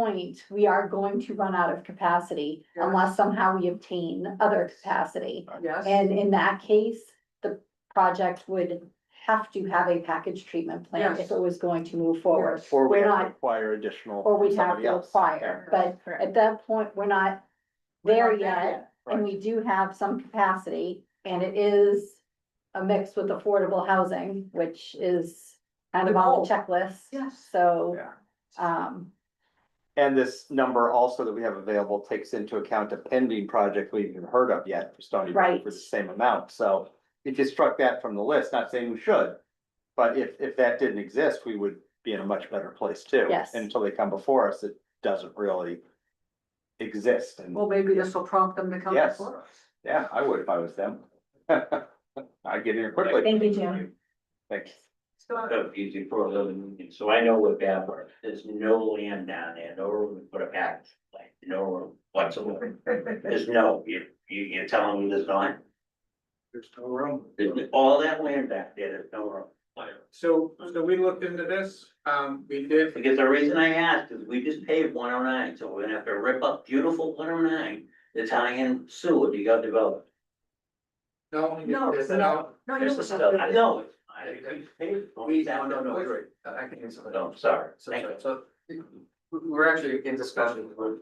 point, we are going to run out of capacity Yeah. unless somehow we obtain other capacity. Yes, And in that case, the project would have to have a package treatment plan Yes. if it was going to move forward. Or we We're have to not, acquire additional. or from we'd have somebody to else. acquire, but at that point, we're not We're there not there yet. yet. And we do have some capacity and it is a mix with affordable housing, which is kind of The on the goal. checklist. Yes. So, Yeah. um, And this number also that we have available takes into account a pending project we haven't heard of yet for Stony Brook Right. for the same amount, so. If you struck that from the list, not saying we should, but if, if that didn't exist, we would be in a much better place too. Yes. And Until they come before us, it doesn't really exist, and well, maybe this will prompt them to come Yes. before us. yeah, I would if I was them. I'd get here quickly. Thank you, Jim. Thanks. So, of using for a living union, so I know what that was, there's no land down there, no room to put a package, like, no room whatsoever. There's no, you, you, you're telling me there's not, There's no room. There's all that land back there, there's no room. So, so we looked into this, um, we did, Because the reason I asked is we just paved one oh nine, so we're gonna have to rip up beautiful one oh nine, to tie in sewer to go develop. no, No, there's no, no. no, you There's the stuff, I know, it. I, we paved, We- no, no, no, great. Uh, I can answer that. no, sorry, So, thank you. so, we- we're actually in discussion with,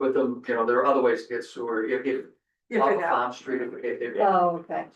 with them, you know, there are other ways to get sewer, if, if. if Off it of happens. Farm Street, if, if, if- oh, okay.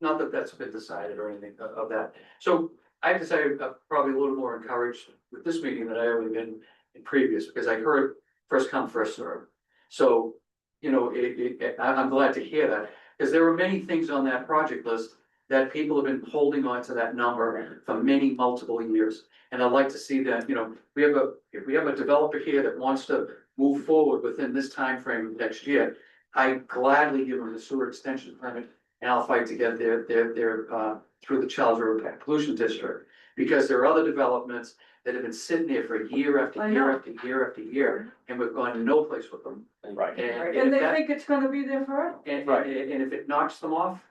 not that that's been decided or anything of, of that. So I have to say, I'm probably a little more encouraged with this meeting than I have been in previous, because I heard first come, first served. So, you know, it, it, I, I'm glad to hear that, because there were many things on that project list that people have been holding on to that number for many multiple years. And I'd like to see that, you know, we have a, if we have a developer here that wants to move forward within this time frame next year, I gladly give them the sewer extension permit and I'll fight to get their, their, their, uh, through the Charles River Pollution District. Because there are other developments that have been sitting there for year after I year know. after year after year, and we've gone to no place with them. Right. And And if they that, think it's gonna be there forever, and, Right. and- and if it knocks them off,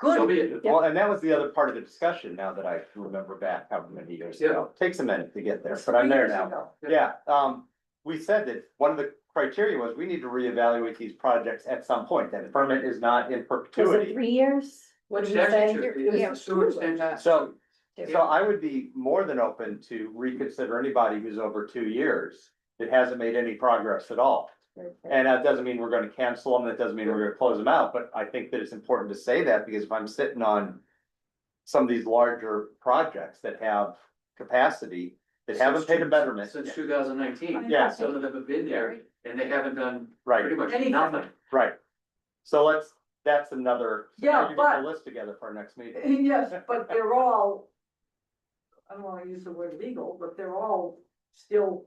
so good, be it. Well, and that was the other part of the discussion, now that I can remember back how many years ago. Takes a minute to get there, but I'm there now. Yeah, um, we said that one of the criteria was we need to reevaluate these projects at some point, that permit is not in Was it perpetuity. three years? What did you say? It's a sewer extension. So, Two. so I would be more than open to reconsider anybody who's over two years that hasn't made any progress at all. And that doesn't mean we're gonna cancel them, that doesn't mean we're gonna close them out, but I think that it's important to say that, because if I'm sitting on some of these larger projects that have capacity, that haven't paid a betterment, Since two thousand nineteen. Yeah. Some of them have been there, and they haven't done right? pretty much Anything. nothing. Right. So let's, that's another. Yeah, you get the but- List together for our next meeting. yes, but they're all. I don't wanna use the word legal, but they're all still,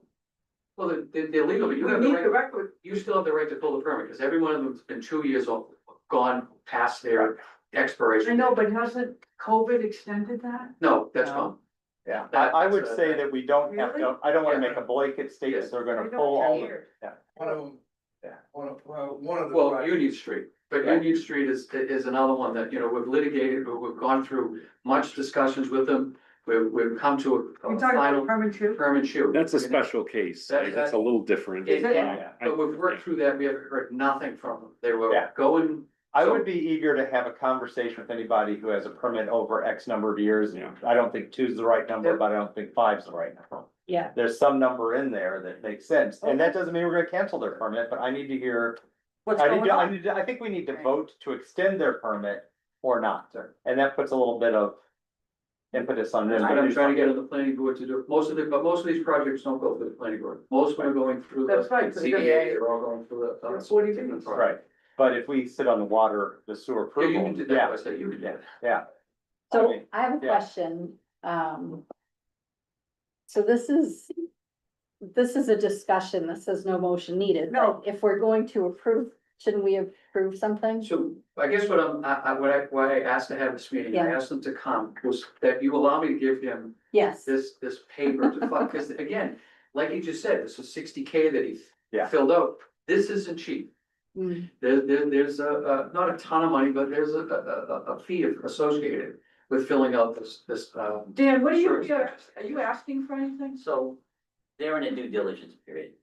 Well, they- they're, they're legal, but we you have the need the right, record, you still have the right to pull the permit, because every one of them's been two years old, gone past their expiration. I know, but hasn't COVID extended that? No, that's No. gone. Yeah, I, That's, I would uh, say that we don't have to, I don't wanna Yeah. make a blanket statement, they're We gonna don't pull all care. of it. One of them. Yeah. One of, well, one of the. Well, projects- Union Street, but Right. Union Street is, is another one that, you know, we've litigated, we- we've gone through much discussions with them. We've, we've come to a- We a talking about final permit two? permit shoot. That's a special case, That- like, that's a that- little different. Is it? Uh, I- But we've worked through that, we haven't heard nothing from them, they were Yeah. going, I would be eager to have a conversation with anybody who has a permit over X number of years. Yeah. I don't think two's the right number, Yeah. but I don't think five's the right number. Yeah. There's some number in there that makes sense, and that doesn't mean we're gonna cancel their permit, but I need to hear, What's I need going to, I on? need to, I think we need to Right. vote to extend their permit or not. And that puts a little bit of impetus on them. that's what to I'm do trying to something. get on the planning board to do. Most of the, but most of these projects don't go through the planning board, most of them are going through the That's right, so they don't- CBA, they're all going through the. uh, They're 40 different Bs. projects. Right, but if we sit on the water, the sewer Yeah, you approval, can do that, yeah, I said you can do that. I So mean, I have a yeah. question, um. So this is, this is a discussion, this is no motion needed. No. If we're going to approve, shouldn't we approve something? So I guess what I'm, I, I, what I, why I asked to have this meeting, I Yeah. asked them to come, was that you allow me to give him Yes, this, this paper to fund, because again, like you just said, this was sixty K that he Yeah. filled out. This isn't cheap. Mm. There, there, there's a, a, not a ton of money, but there's a, a, a, a fee associated with filling out this, this, um. Dan, what are you, Sure. are you asking for anything? So they're in a due diligence period.